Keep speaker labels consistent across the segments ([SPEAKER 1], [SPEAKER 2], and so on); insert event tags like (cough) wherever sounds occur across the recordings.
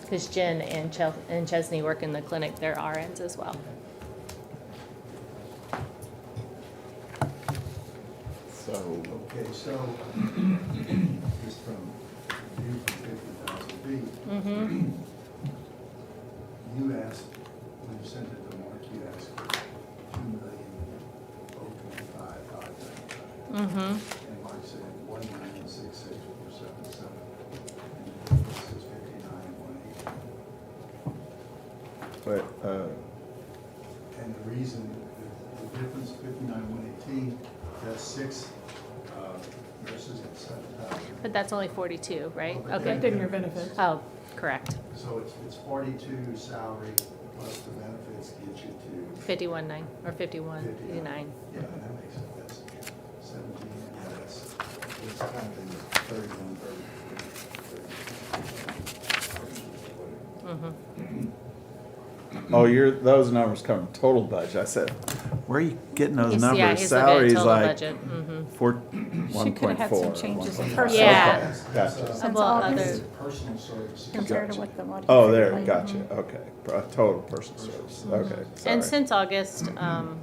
[SPEAKER 1] because Jen and Chel- and Chesney work in the clinic, they're RNs as well.
[SPEAKER 2] So,
[SPEAKER 3] Okay, so, just from you from fifty thousand feet,
[SPEAKER 1] Mm-hmm,
[SPEAKER 3] you asked, when you sent it to Mark, you asked for two million oh twenty-five, five ninety-five.
[SPEAKER 1] mm-hmm.
[SPEAKER 3] And Mark said one million six six four seven seven. And This is fifty-nine, one eighty.
[SPEAKER 2] but, uh,
[SPEAKER 3] And the reason, the- the difference fifty-nine, one eighteen, that's six uh, nurses at seven thousand.
[SPEAKER 1] But that's only forty-two, right? Okay.
[SPEAKER 4] Affecting your benefits.
[SPEAKER 1] Oh, correct.
[SPEAKER 3] So it's, it's forty-two salary plus the benefits get you to,
[SPEAKER 1] Fifty-one nine, or fifty-one nine.
[SPEAKER 3] yeah, that makes it, that's seventeen, yeah, that's, it's kind of thirty-one, thirty-two.
[SPEAKER 1] Mm-hmm.
[SPEAKER 2] oh, you're, those numbers come from total budget. I said, where are you getting those numbers?
[SPEAKER 1] Yeah, he's looking at
[SPEAKER 2] Salaries
[SPEAKER 1] total
[SPEAKER 2] like
[SPEAKER 1] budget, mm-hmm.
[SPEAKER 2] Four,
[SPEAKER 4] She
[SPEAKER 2] one
[SPEAKER 4] could
[SPEAKER 2] point
[SPEAKER 4] have had
[SPEAKER 2] four.
[SPEAKER 4] some changes in
[SPEAKER 2] 1.5.
[SPEAKER 4] her.
[SPEAKER 1] Yeah.
[SPEAKER 2] Okay,
[SPEAKER 3] That's,
[SPEAKER 2] Gotcha.
[SPEAKER 3] uh,
[SPEAKER 4] Since
[SPEAKER 1] Well,
[SPEAKER 4] August
[SPEAKER 1] other-
[SPEAKER 3] Personal services.
[SPEAKER 4] compared to what the audit.
[SPEAKER 2] Oh, there,
[SPEAKER 4] said.
[SPEAKER 2] gotcha, okay. Pro- Total person service,
[SPEAKER 4] Mm-hmm.
[SPEAKER 2] okay,
[SPEAKER 1] Mm-hmm. And
[SPEAKER 2] sorry.
[SPEAKER 1] since August, um,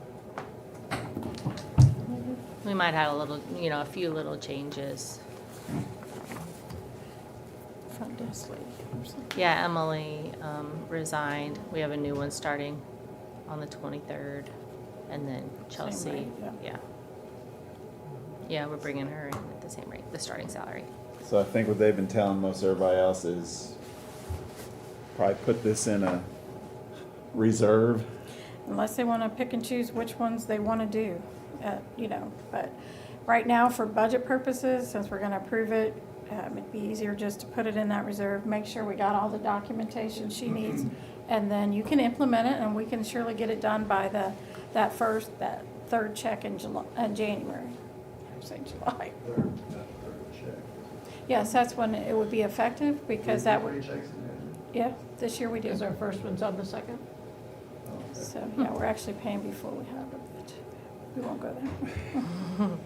[SPEAKER 1] we might have a little, you know, a few little changes.
[SPEAKER 4] Front desk lady or something.
[SPEAKER 1] Yeah, Emily um, resigned. We have a new one starting on the 23rd. And then Chelsea,
[SPEAKER 4] rate, yeah.
[SPEAKER 1] yeah. Yeah, we're bringing her in at the same rate, the starting salary.
[SPEAKER 2] So I think what they've been telling most everybody else is probably put this in a reserve.
[SPEAKER 4] Unless they want to pick and choose which ones they want to do, uh, you know, but right now, for budget purposes, since we're going to approve it, um, it'd be easier just to put it in that reserve, make sure we got all the documentation she
[SPEAKER 2] Mm-hmm.
[SPEAKER 4] needs, and then you can implement it, and we can surely get it done by the, that first, that third check in July, uh, January, I'm saying July.
[SPEAKER 3] Third, not third check.
[SPEAKER 4] Yes, that's when it would be effective, because
[SPEAKER 2] Mm-hmm.
[SPEAKER 4] that
[SPEAKER 3] Three
[SPEAKER 4] would,
[SPEAKER 3] checks in there.
[SPEAKER 4] yeah, this year we do.
[SPEAKER 5] Because our first one's on the second?
[SPEAKER 3] Oh, okay.
[SPEAKER 4] So, yeah, we're actually paying before we have it, but we won't go there.
[SPEAKER 5] (laughs)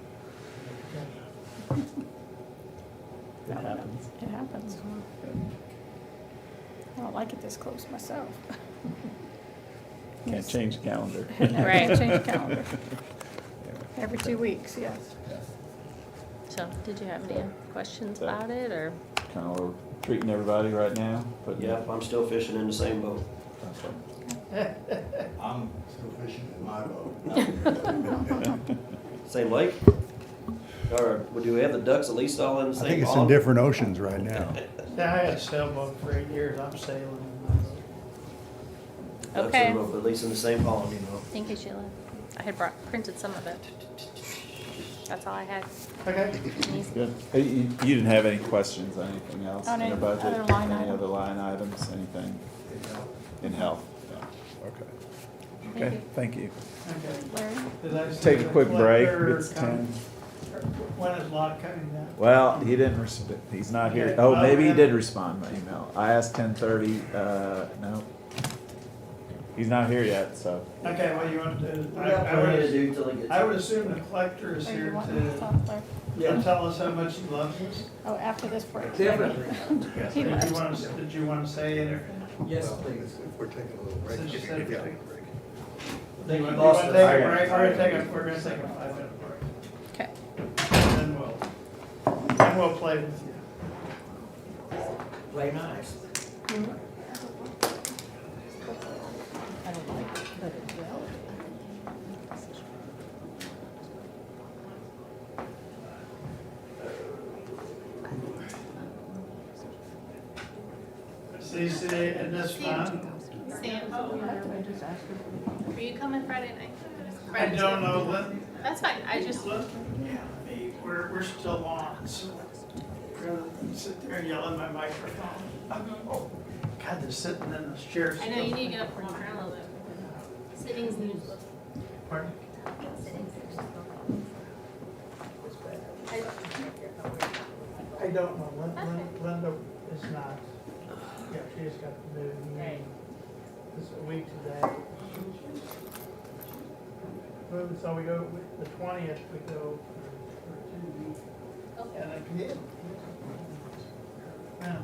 [SPEAKER 4] It happens. It happens. I don't like it this close myself.
[SPEAKER 2] Can't
[SPEAKER 4] Yes. (laughs)
[SPEAKER 2] change the calendar.
[SPEAKER 4] No,
[SPEAKER 2] (laughs)
[SPEAKER 1] Right.
[SPEAKER 4] Change the calendar. Every two weeks, yes.
[SPEAKER 1] So, did you have any questions
[SPEAKER 2] So-
[SPEAKER 1] about it or?
[SPEAKER 2] Kind of treating everybody right now, putting.
[SPEAKER 6] Yep, I'm still fishing in the same boat.
[SPEAKER 2] Okay.
[SPEAKER 3] I'm still fishing in my boat.
[SPEAKER 6] Same lake? Or well, do we have the ducks at least all in the
[SPEAKER 3] (laughs) I
[SPEAKER 6] same
[SPEAKER 3] think it's in
[SPEAKER 6] pond?
[SPEAKER 3] different oceans right now.
[SPEAKER 5] Yeah, I had a sailboat for eight years, I'm sailing.
[SPEAKER 6] Ducks
[SPEAKER 1] Okay.
[SPEAKER 6] in the boat, but at least in the same pond, you know.
[SPEAKER 1] Thank you, Sheila. I had brought, printed some of it. That's all I had.
[SPEAKER 5] Okay.
[SPEAKER 2] Good. Hey, You, you didn't have any questions on anything else
[SPEAKER 4] On
[SPEAKER 2] in the
[SPEAKER 4] any
[SPEAKER 2] budget?
[SPEAKER 4] other line
[SPEAKER 2] Any
[SPEAKER 4] item?
[SPEAKER 2] other line items, anything in health? Yeah, Okay. Okay, thank you.
[SPEAKER 4] Larry?
[SPEAKER 2] Take a quick break, it's ten.
[SPEAKER 5] When is lock coming down?
[SPEAKER 2] Well, he didn't respond, he's not here,
[SPEAKER 5] Okay.
[SPEAKER 2] oh, maybe he did respond to my email, I asked ten thirty, uh, no. He's not here yet, so,
[SPEAKER 5] Okay, what you want to do? I-
[SPEAKER 6] What do
[SPEAKER 5] I
[SPEAKER 6] I need to
[SPEAKER 5] would-
[SPEAKER 6] do till it gets?
[SPEAKER 5] I would assume the collector is
[SPEAKER 4] Or you
[SPEAKER 5] here
[SPEAKER 4] want me to
[SPEAKER 5] to
[SPEAKER 4] talk, Larry?
[SPEAKER 5] to tell us how much he loves us.
[SPEAKER 4] Oh, after this break.
[SPEAKER 5] Yes,
[SPEAKER 4] He
[SPEAKER 5] Did you
[SPEAKER 4] left.
[SPEAKER 5] want to, did you want to say it or?
[SPEAKER 3] Yes, please. We're taking a little break.
[SPEAKER 5] Since you said we're taking a
[SPEAKER 3] break.
[SPEAKER 5] You want
[SPEAKER 6] lost
[SPEAKER 5] to
[SPEAKER 6] it.
[SPEAKER 5] take
[SPEAKER 2] I
[SPEAKER 5] a
[SPEAKER 2] got it.
[SPEAKER 5] break? We're gonna take a, we're gonna take a five minute break.
[SPEAKER 4] Okay.
[SPEAKER 5] And then we'll, then we'll play with you.
[SPEAKER 6] Play nice.
[SPEAKER 5] I don't like it, but it's valid. CC in this fund,
[SPEAKER 1] Are you coming Friday night?
[SPEAKER 5] I don't know, what
[SPEAKER 1] That's fine, I just,
[SPEAKER 5] look, we're, we're still on, so rather than sit there and yell in my microphone. Oh, God, they're sitting in those chairs.
[SPEAKER 1] Mm-hmm. I know you need to get up and walk around a little bit. Sittings news.
[SPEAKER 5] Pardon? I don't know, Lin- Lin- Linda is not, yeah, she's got the new meeting, it's a week today. Well, So we go, the twentieth, we go for- for two weeks. And again. Now,